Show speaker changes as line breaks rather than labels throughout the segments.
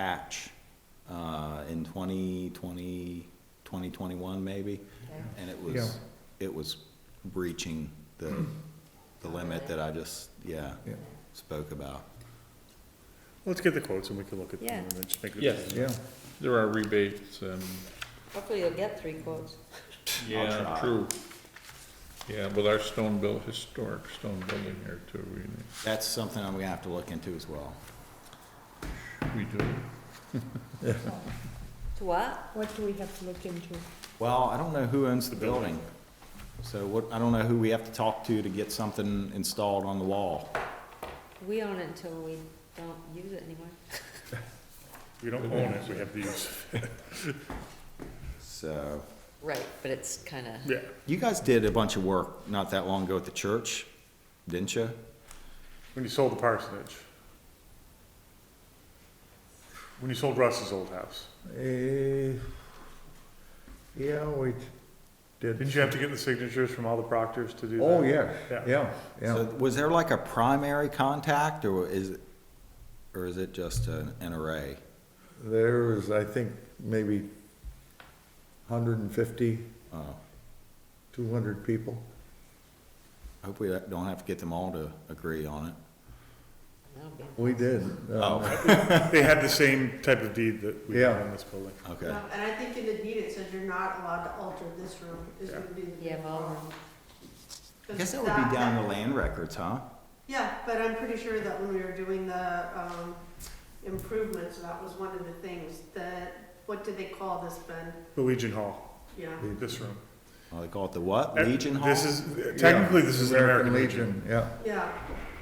patch uh, in 2020, 2021 maybe, and it was, it was breaching the, the limit that I just, yeah,
Yeah.
spoke about.
Let's get the quotes and we can look at them
Yeah.
and then just make a
Yes.
decision.
Yeah,
There are rebates and,
Hopefully you'll get three quotes.
yeah,
try.
true. Yeah, with our stone built, historic stone building here too, we,
That's something I'm gonna have to look into as well.
we do.
To what?
What do we have to look into?
Well, I don't know who owns the building, so what, I don't know who we have to talk to to get something installed on the wall.
We own it until we don't use it anymore.
We don't own it, we have the use.
So,
Right, but it's kinda,
Yeah,
you guys did a bunch of work not that long ago at the church, didn't you?
when you sold the parsonage. When you sold Russ's old house.
eh, yeah, we did.
Didn't you have to get the signatures from all the proctors to do that?
Oh, yeah,
Yeah.
yeah,
So
yeah.
was there like a primary contact, or is, it- or is it just an an array?
There was, I think, maybe hundred and fifty, uh,
Oh,
two hundred people.
Hope we don't have to get them all to agree on it.
that'll be,
We did. um,
They had the same type of deed that we had
Yeah.
on this building.
Okay,
No, Um, And I think in the deed, it says you're not allowed to alter this room, is
Yeah.
would be the.
Yeah, well,
rule.
I guess that would be down the land records, huh?
Yeah, but I'm pretty sure that when we were doing the, um, improvements, that was one of the things that, what did they call this, Ben?
The Legion Hall,
Yeah,
this room.
Oh, they call it the what, Legion Hall?
This is, uh, technically, this is American Legion.
Yeah,
yeah,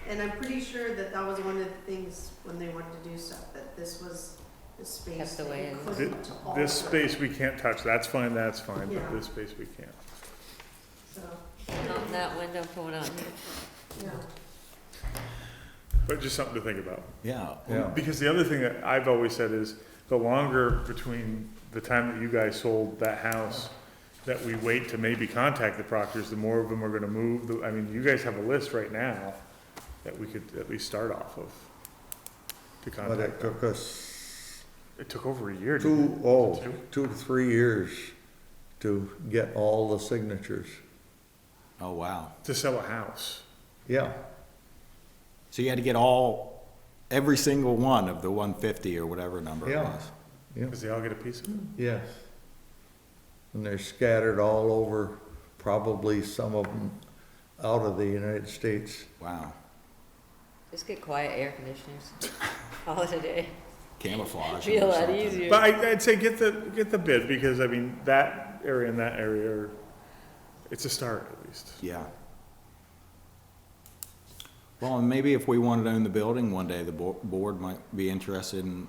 and I'm pretty sure that that was one of the things when they wanted to do stuff, that this was the space
Kept
that
away
you
and-
couldn't alter.
This space we can't touch, that's fine, that's fine,
Yeah.
but this space we can't.
So,
not in that window going on here.
yeah,
But just something to think about.
Yeah.
yeah.
Because the other thing that I've always said is, the longer between the time that you guys sold that house, that we wait to maybe contact the proctors, the more of them are gonna move, The- I mean, you guys have a list right now that we could at least start off of. To
But
contact,
it took us
it took over a year, didn't
two,
it?
oh, two to three years to get all the signatures.
Oh, wow.
To sell a house,
Yeah,
So you had to get all, every single one of the 150 or whatever number it
Yeah.
was?
yeah.
cause they all get a piece of it.
Yes. And they're scattered all over, probably some of them out of the United States.
Wow.
Just get quiet air conditioners. Call it a day.
Camouflage.
Be a
or
lot
something.
easier.
But I, I'd say get the, get the bid, because I mean, that area and that area, are- it's a start at least.
Yeah. Well, and maybe if we wanted to own the building one day, the bo- board might be interested in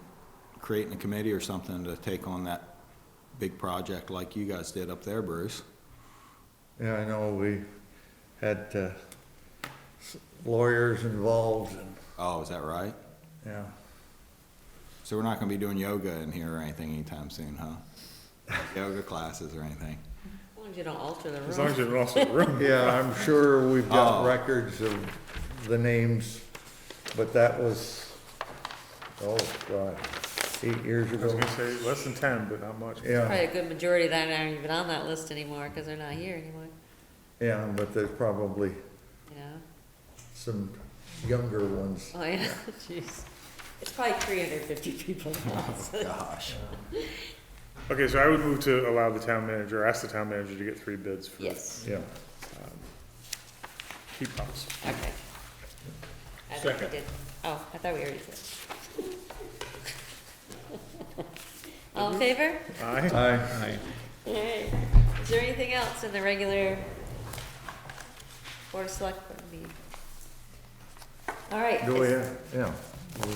creating a committee or something to take on that big project like you guys did up there, Bruce.
Yeah, I know, we had uh, s- lawyers involved and,
Oh, is that right?
yeah.
So we're not gonna be doing yoga in here or anything anytime soon, huh? Yoga classes or anything?
As long as you don't alter the
As long as
room.
you're in also room.
Yeah, I'm sure we've got
Oh.
records of the names, but that was, oh, God, eight years
I
ago.
was gonna say less than ten, but not much.
Yeah,
Probably a good majority of that aren't even on that list anymore, cause they're not here anymore,
yeah, but there's probably
you know?
some younger ones.
Oh, yeah, jeez. It's probably three hundred fifty people now,
Oh,
so-
Gosh.
Okay, so I would move to allow the town manager, ask the town manager to get three bids for um,
Yes,
Yeah.
heat pumps.
okay. I think we
Second.
did. Oh, I thought we already did. All in favor?
Aye.
Aye.
Aye.
Alright, is there anything else in the regular Board of Selectmen meeting? Alright,
Do we,
is-
have- yeah, we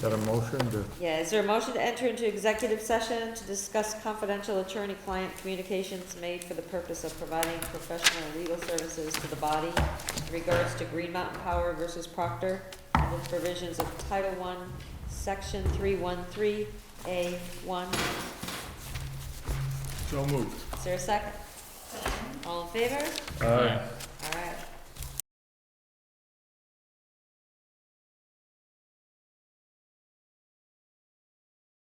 got a motion to,
yeah, is there a motion to enter into executive session to discuss confidential attorney-client communications made for the purpose of providing professional legal services to the body in regards to Green Mountain Power versus Proctor, and with provisions of Title One, Section three one three, A one.
So moved.
Is there a second? All in favor?
Aye.